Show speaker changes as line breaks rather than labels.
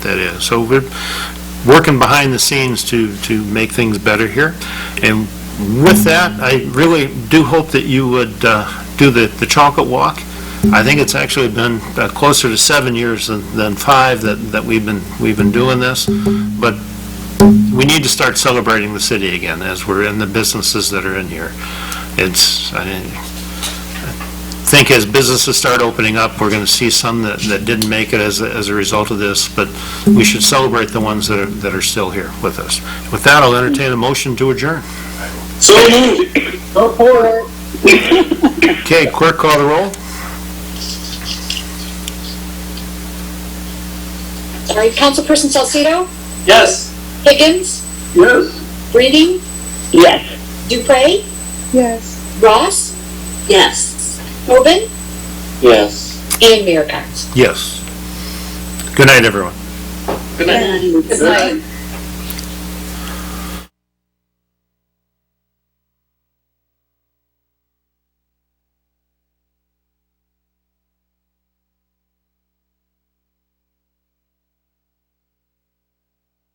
that is. So we're working behind the scenes to, to make things better here. And with that, I really do hope that you would uh, do the, the chocolate walk. I think it's actually been uh, closer to seven years than, than five that, that we've been, we've been doing this. But we need to start celebrating the city again as we're in the businesses that are in here. It's, I, think as businesses start opening up, we're going to see some that, that didn't make it as, a- as a result of this, but we should celebrate the ones that are, that are still here with us. With that, I'll entertain a motion to adjourn.
So moved.
Support.
Okay, clerk call the roll?
Sorry, Councilperson Salcido,
Yes.
Higgins,
Yes.
Reading,
Yes.
Dupre,
Yes.
Ross. Yes. Tobin
Yes.
and Mayor Cox.
Yes. Good night, everyone.
Good night.
Good night.